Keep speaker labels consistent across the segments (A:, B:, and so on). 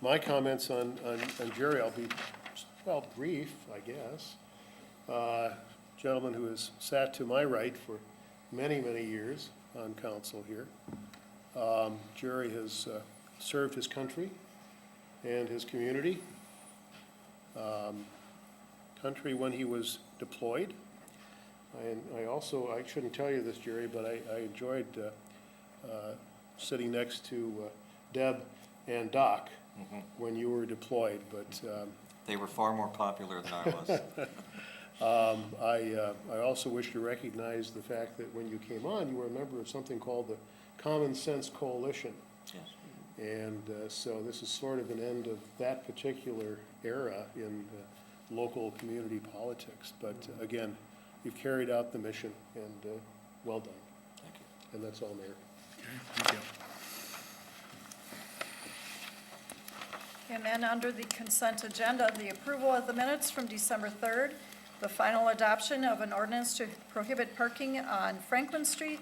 A: my comments on, on on Jerry, I'll be, well, brief, I guess. Uh, Gentleman who has sat to my right for many, many years on council here. Um, Jerry has uh, served his country and his community. Um, Country when he was deployed. And I also, I shouldn't tell you this, Jerry, but I, I enjoyed uh, uh, sitting next to uh, Deb and Doc when you were deployed, but um,
B: They were far more popular than I was.
A: um, I, uh, I also wish to recognize the fact that when you came on, you were a member of something called the Common Sense Coalition.
B: Yes.
A: And uh, so this is sort of an end of that particular era in uh, local community politics. But uh, again, you've carried out the mission and uh, well done.
B: Thank you.
A: And that's all, Mayor.
C: And then under the consent agenda, the approval of the minutes from December 3rd, the final adoption of an ordinance to prohibit parking on Franklin Street,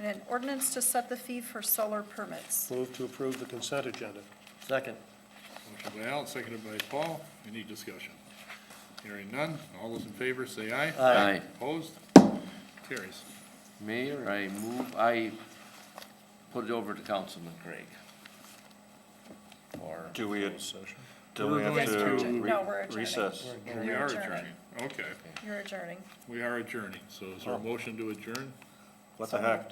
C: and an ordinance to set the fee for solar permits.
A: Move to approve the consent agenda.
B: Second.
D: Motion by Al, seconded by Paul. Any discussion? Hearing none. All those in favor say aye.
E: Aye.
D: Opposed? Carries.
E: Mayor, I move, I put it over to Councilman Craig. Or,
B: Do we, do we
C: Yes,
B: have
C: we're
B: to
C: adjourn-
B: re-
C: No, we're adjourning.
B: recess?
D: Oh, we
C: You're
D: are
C: adjourned.
D: adjourning. Okay,
C: You're adjourning.
D: we are adjourning. So is
E: Oh.
D: there a motion to adjourn?
B: What the heck?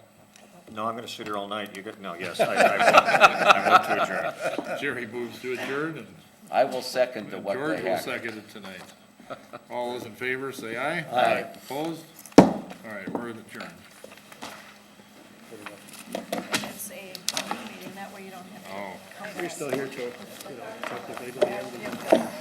B: No, I'm gonna sit here all night. You get, no, yes, I, I, I move to adjourn.
D: Jerry moves to adjourn and
E: I will second the what the
D: George will
E: heck.
D: second it tonight. All those in favor say aye.
E: Aye.
D: Opposed? All right, we're adjourned.
C: And it's a meeting, that way you don't have to.
D: Oh.
C: come back.
A: You're still here, Joe. You know, technically, to the end.
C: You have to-